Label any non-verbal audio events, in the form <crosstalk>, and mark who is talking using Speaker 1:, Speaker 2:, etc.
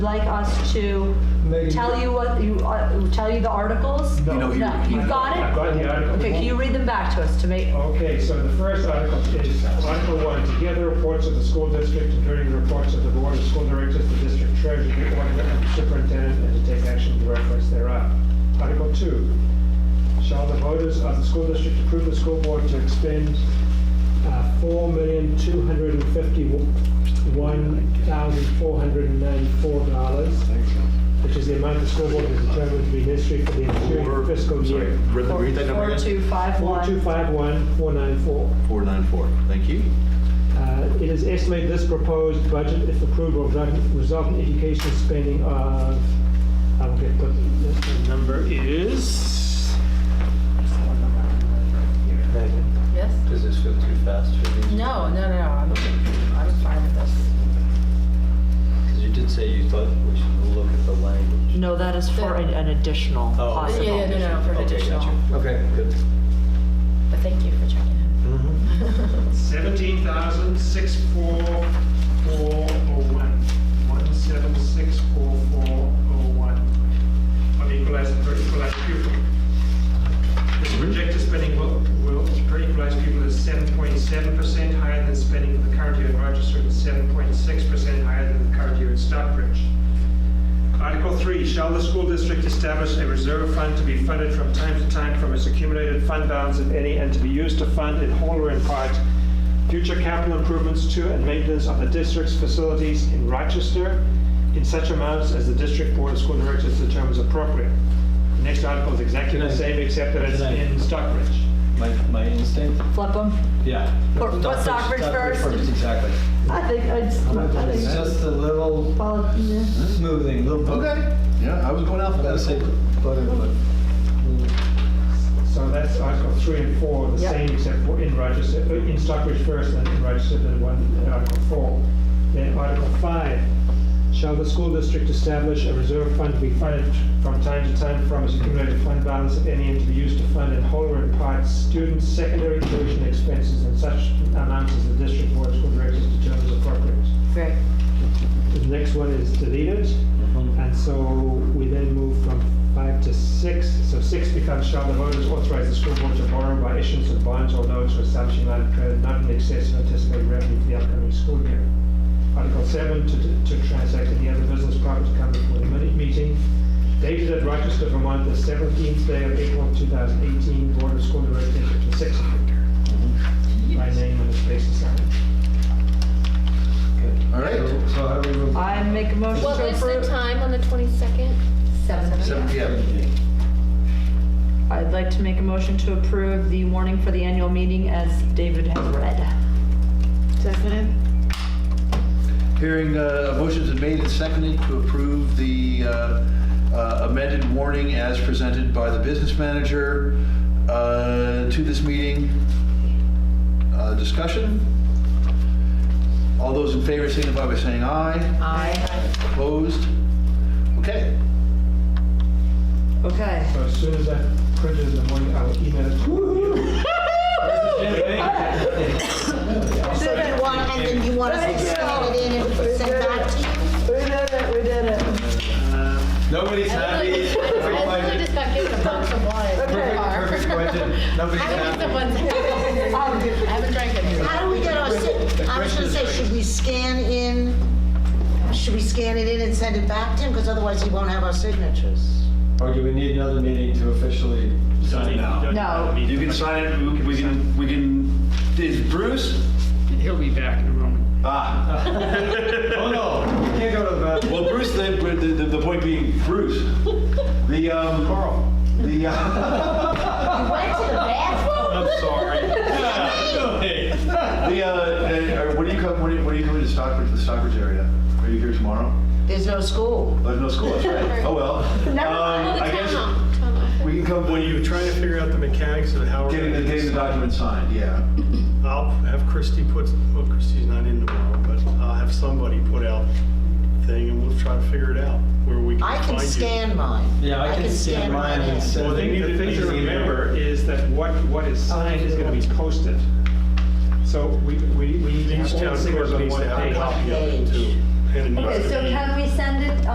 Speaker 1: like us to
Speaker 2: Maybe-
Speaker 1: tell you what, you, uh, tell you the articles?
Speaker 2: No. You know,
Speaker 3: you-
Speaker 1: No, you've got
Speaker 4: I've
Speaker 1: it?
Speaker 4: got the article.
Speaker 1: Okay, can you read them back to us to make,
Speaker 4: Okay, so the first article is Article One, to hear the reports of the school district, including the reports of the board of school directors, the district treasurer, the auditor, and the superintendent, and to take action in reference thereof. Article Two, shall the voters of the school district approve the school board to expend uh, four million, two hundred and fifty-one thousand, four hundred and ninety-four dollars, which is the amount the school board has determined to be necessary for the ensuing fiscal year.
Speaker 3: Read the- read that number
Speaker 1: four,
Speaker 3: again.
Speaker 1: two, five,
Speaker 4: Four two
Speaker 1: one?
Speaker 4: five one, four nine four.
Speaker 3: 494, thank you.
Speaker 4: Uh, It is estimated this proposed budget, if approved, will result- result in education spending of, I will get, put the number is.
Speaker 5: Yes?
Speaker 6: Does this go too fast for you?
Speaker 5: No, no, no, I'm, I'm fine with this.
Speaker 6: Because you did say you thought we should look at the language.
Speaker 1: No, that is for an an additional
Speaker 6: Oh.
Speaker 1: possible.
Speaker 5: Yeah, yeah, no, no, for
Speaker 6: Okay,
Speaker 5: additional,
Speaker 6: gotcha. Okay, good.
Speaker 5: but thank you for checking
Speaker 6: Mm-hmm.
Speaker 5: in.
Speaker 4: Seventeen thousand, six four, four oh one. One seven, six four, four oh one. On equalized, per equalized pupil. This projected spending will, will, per equalized pupil is seven point seven percent higher than spending of the current year in Rochester and seven point six percent higher than the current year in Stockbridge. Article three, shall the school district establish a reserve fund to be funded from time to time from its accumulated fund balance if any and to be used to fund in whole or in part future capital improvements to and maintenance of the district's facilities in Rochester in such amounts as the district board of school directors determines appropriate. The next article is exactly the
Speaker 6: Can I-
Speaker 4: same except that it's
Speaker 6: can I-
Speaker 4: in Stockbridge.
Speaker 6: My, my instinct,
Speaker 1: Flip them?
Speaker 6: yeah.
Speaker 1: Put- put Stockbridge first.
Speaker 6: Exactly.
Speaker 1: I think, I just, I
Speaker 6: It's
Speaker 1: think,
Speaker 6: just a little
Speaker 1: well, yeah.
Speaker 6: smoothing, little.
Speaker 3: Yeah, I was going
Speaker 6: I'm gonna say, but,
Speaker 4: So that's Article 3 and 4, the
Speaker 1: Yep.
Speaker 4: same except for in Rochester, uh, in Stockbridge first, then in Rochester, then one, in Article 4. Then Article 5, shall the school district establish a reserve fund to be funded from time to time from its accumulated fund balance of any and to be used to fund in whole or in part student secondary tuition expenses and such amounts as the district board of school directors determines appropriate.
Speaker 1: Great.
Speaker 4: The next one is deleted. And so we then move from five to six. So six becomes shall the voters authorize the school board to borrow by issuance of bonds or notes or establishing line of credit not in excess of anticipated revenue for the upcoming school year. Article seven, to, to transact any other business proper to come before the minute meeting. Dated at Rochester, Vermont, the seventeenth day of April, two thousand eighteen, Board of School Directors, District six. By name and space assigned.
Speaker 3: All right,
Speaker 6: So how do we move?
Speaker 1: I make a motion
Speaker 7: What
Speaker 1: to
Speaker 7: was the
Speaker 1: approve.
Speaker 7: time on the 22nd?
Speaker 3: seven PM.
Speaker 1: I'd like to make a motion to approve the warning for the annual meeting as David has read.
Speaker 7: Seconded.
Speaker 3: Hearing, uh, motions have made and seconded to approve the uh, uh, amended warning as presented by the business manager uh, to this meeting. Uh, Discussion? All those in favor signify by saying aye.
Speaker 1: Aye.
Speaker 3: Opposed? Okay.
Speaker 1: Okay.
Speaker 4: So as soon as I print it in the morning, I will email it to you.
Speaker 6: <laughs>
Speaker 8: You did one, and then you want us to scan it in and send back to you?
Speaker 1: We did it, we did it.
Speaker 3: Nobody's
Speaker 7: I literally just got given a box of wine.
Speaker 1: Okay.
Speaker 7: Perfect
Speaker 3: Nobody's
Speaker 7: I haven't eaten
Speaker 1: <laughs>
Speaker 7: one since. I
Speaker 1: Um,
Speaker 7: haven't drank any.
Speaker 8: How do we get our, si- I was gonna say, should we scan in, should we scan it in and send it back to him? Because otherwise he won't have our signatures.
Speaker 3: Or do we need another meeting to officially sign out?
Speaker 1: No.
Speaker 3: You can sign it, we can- we can, we can, is Bruce?
Speaker 9: He'll be back in a moment.
Speaker 3: Ah. Oh, no.
Speaker 6: You can't go to the bathroom.
Speaker 3: Well, Bruce, the, the- the, the point being, Bruce, the, um. Carl. The, uh.
Speaker 8: Went to the bathroom?
Speaker 6: I'm sorry.
Speaker 3: The, uh, uh, what do you come, what do you, what do you coming to Stockbridge, the Stockbridge area? Are you here tomorrow?
Speaker 8: There's no school.
Speaker 3: There's no school, that's right. Oh, well. Um, I guess We can come,
Speaker 10: When you're trying to figure out the mechanics of how we're
Speaker 3: getting the,
Speaker 10: gonna
Speaker 3: getting
Speaker 10: do
Speaker 3: the
Speaker 10: this,
Speaker 3: document signed, yeah.
Speaker 10: I'll have Christie put, well, Christie's not in tomorrow, but I'll have somebody put out thing and we'll try to figure it out where we can
Speaker 8: I
Speaker 10: find you.
Speaker 8: can scan mine.
Speaker 6: Yeah, I can scan mine
Speaker 8: in.
Speaker 6: and send
Speaker 4: Well, the
Speaker 6: it.
Speaker 4: the thing to remember is that what, what is signed is gonna be posted. So we, we, we need to
Speaker 10: Each
Speaker 4: have all
Speaker 10: town
Speaker 4: the signatures
Speaker 10: clerk
Speaker 4: on
Speaker 10: needs
Speaker 4: one
Speaker 10: to have a
Speaker 4: page.
Speaker 10: copy of it too. And it needs
Speaker 1: Okay,
Speaker 10: to
Speaker 1: so
Speaker 10: be-
Speaker 1: can we send it